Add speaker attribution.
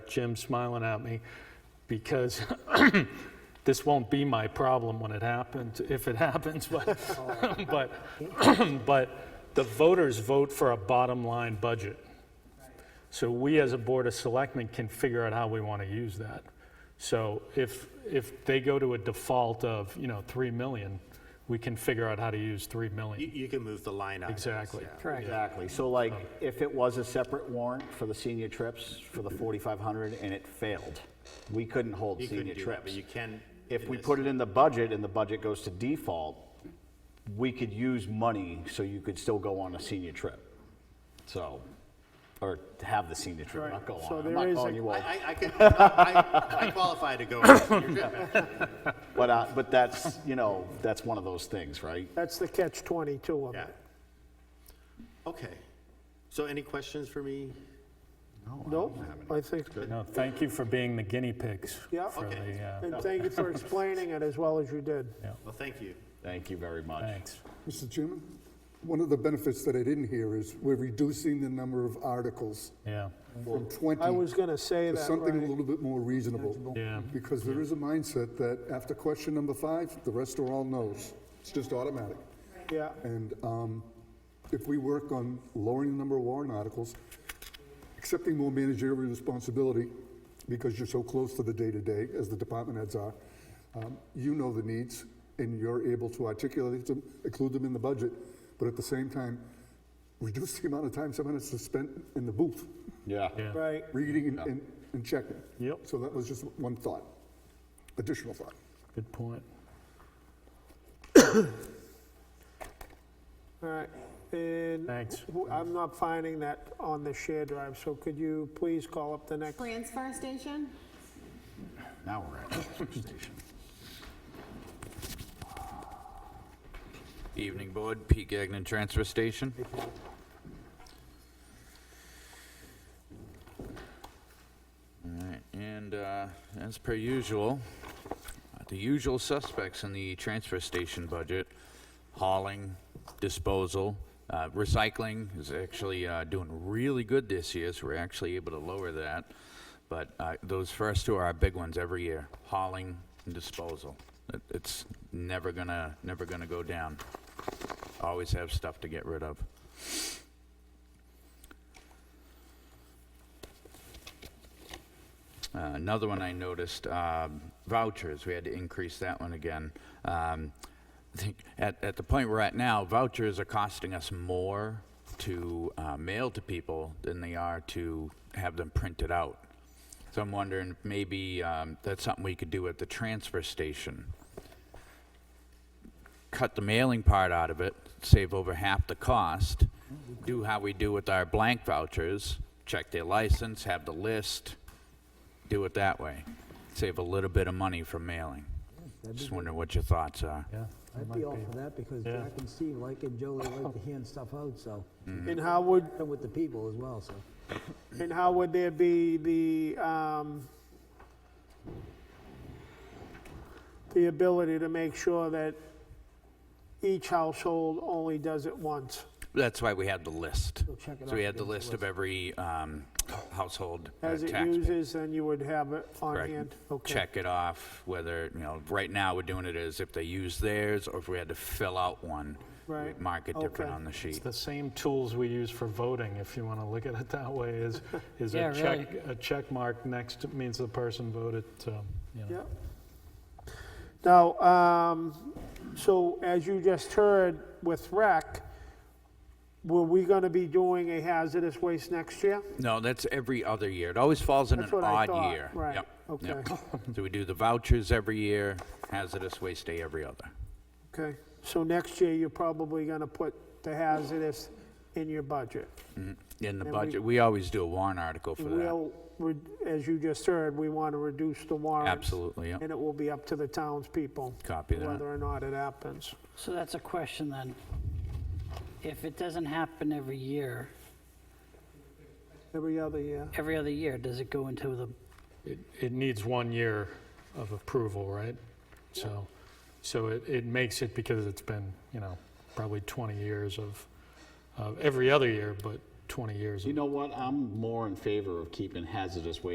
Speaker 1: Jim smiling at me because this won't be my problem when it happens, if it happens, but, but, but the voters vote for a bottom line budget. So we as a Board of Selectmen can figure out how we want to use that. So if, if they go to a default of, you know, 3 million, we can figure out how to use 3
Speaker 2: You,
Speaker 1: million.
Speaker 2: you can move the line items.
Speaker 1: Exactly.
Speaker 2: yeah.
Speaker 3: Correct.
Speaker 4: Exactly. So like, if it was a separate warrant for the senior trips, for the 4,500, and it failed, we couldn't hold
Speaker 2: You
Speaker 4: senior
Speaker 2: couldn't do that, but
Speaker 4: trips.
Speaker 2: you can.
Speaker 4: If
Speaker 2: in
Speaker 4: we
Speaker 2: this.
Speaker 4: put it in the budget and the budget goes to default, we could use money so you could still go on a senior trip. So, or to have the senior trip, not go
Speaker 3: So
Speaker 4: on. I'm
Speaker 3: there
Speaker 4: not
Speaker 3: is
Speaker 4: calling
Speaker 3: a-
Speaker 4: you all.
Speaker 2: I, I- I can, I, I qualify to go. on senior trip, actually.
Speaker 4: But, uh, but that's, you know, that's one of those things, right?
Speaker 3: That's the catch 22 of
Speaker 2: Yeah.
Speaker 3: it.
Speaker 2: Okay. So any questions for me?
Speaker 3: Nope, I think,
Speaker 1: No, thank you for being the guinea pigs.
Speaker 3: Yeah.
Speaker 1: For
Speaker 2: Okay.
Speaker 1: the, uh,
Speaker 3: and thank you for explaining it as well as you did.
Speaker 2: Well, thank you.
Speaker 4: Thank you very much.
Speaker 1: thanks.
Speaker 5: Mr. Chairman, one of the benefits that I didn't hear is we're reducing the number of articles
Speaker 1: Yeah,
Speaker 5: from 20
Speaker 3: I was
Speaker 5: to
Speaker 3: gonna say that,
Speaker 5: something a
Speaker 3: right?
Speaker 5: little bit more reasonable.
Speaker 1: Yeah.
Speaker 5: Because there is a mindset that after question number five, the rest are all no's. It's just automatic.
Speaker 3: Yeah,
Speaker 5: And um, if we work on lowering the number of warrant articles, accepting more managerial responsibility, because you're so close to the day-to-day, as the department heads are, um, you know the needs, and you're able to articulate them, include them in the budget, but at the same time, reduce the amount of time someone has to spend in the booth,
Speaker 4: Yeah.
Speaker 1: yeah.
Speaker 3: right,
Speaker 5: reading and- and, and checking.
Speaker 1: Yep.
Speaker 5: So that was just one thought, additional thought.
Speaker 1: Good point.
Speaker 3: all right. And
Speaker 1: Thanks.
Speaker 3: who- I'm not finding that on the shared drive, so could you please call up the next?
Speaker 6: Transfer station?
Speaker 4: Now we're at the transfer station.
Speaker 7: Evening, Board. Pete Gagnon, Transfer Station. All right, and uh, as per usual, uh, the usual suspects in the transfer station budget, hauling, disposal, uh, recycling is actually uh, doing really good this year, so we're actually able to lower that. But uh, those first two are our big ones every year, hauling and disposal. It- It's never gonna, never gonna go down. Always have stuff to get rid of. Uh, Another one I noticed, um, vouchers, we had to increase that one again. Um, I think at, at the point we're at now, vouchers are costing us more to uh, mail to people than they are to have them printed out. So I'm wondering, if maybe um, that's something we could do at the transfer station. Cut the mailing part out of it, save over half the cost, do how we do with our blank vouchers, check their license, have the list, do it that way. Save a little bit of money from mailing. Just wondering what your thoughts are.
Speaker 1: Yeah.
Speaker 8: I'd be all for that because
Speaker 1: Yeah.
Speaker 8: Jack and Steve like and Joe, they like to hand stuff out, so,
Speaker 3: And how would,
Speaker 8: and with the people as well, so.
Speaker 3: and how would there be the, um, the ability to make sure that each household only does it once?
Speaker 7: That's why we had the list.
Speaker 8: We'll check it
Speaker 7: So we
Speaker 8: out
Speaker 7: had the
Speaker 8: against
Speaker 7: list of every um, household uh,
Speaker 3: As it
Speaker 7: taxpayer.
Speaker 3: uses, then you would have it on
Speaker 7: Correct.
Speaker 3: hand? Okay.
Speaker 7: Check it off, whether, you know, right now, we're doing it as if they use theirs, or if we had to fill out one. we'd
Speaker 3: Right.
Speaker 7: Mark it different
Speaker 3: Okay.
Speaker 7: on the sheet.
Speaker 1: The same tools we use for voting, if you want to look at it that way, is, is
Speaker 9: Yeah,
Speaker 1: a check,
Speaker 9: really.
Speaker 1: a check mark next means the person voted, so, you know.
Speaker 3: Yep. Now, um, so as you just heard with rec, were we gonna be doing a hazardous waste next year?
Speaker 7: No, that's every other year. It always falls in an
Speaker 3: That's what I
Speaker 7: odd
Speaker 3: thought,
Speaker 7: year.
Speaker 3: right,
Speaker 7: Yep, yep.
Speaker 3: okay.
Speaker 7: So we do the vouchers every year, hazardous waste day every other.
Speaker 3: Okay, so next year, you're probably gonna put the hazardous in your budget.
Speaker 7: Mm-hmm. In the
Speaker 3: we-
Speaker 7: budget, we always do a warrant article for that.
Speaker 3: We'll, re- as you just heard, we wanna reduce the warrants.
Speaker 7: Absolutely, yep.
Speaker 3: And it will be up to the townspeople.
Speaker 7: Copy that.
Speaker 3: Whether or not it happens.
Speaker 9: So that's a question then. If it doesn't happen every year,
Speaker 3: Every other year.
Speaker 9: every other year, does it go into the,
Speaker 1: It, it needs one year of approval, right? So, so it, it makes it because it's been, you know, probably 20 years of, of every other year, but 20 years of
Speaker 4: You know what? I'm more in favor of keeping hazardous waste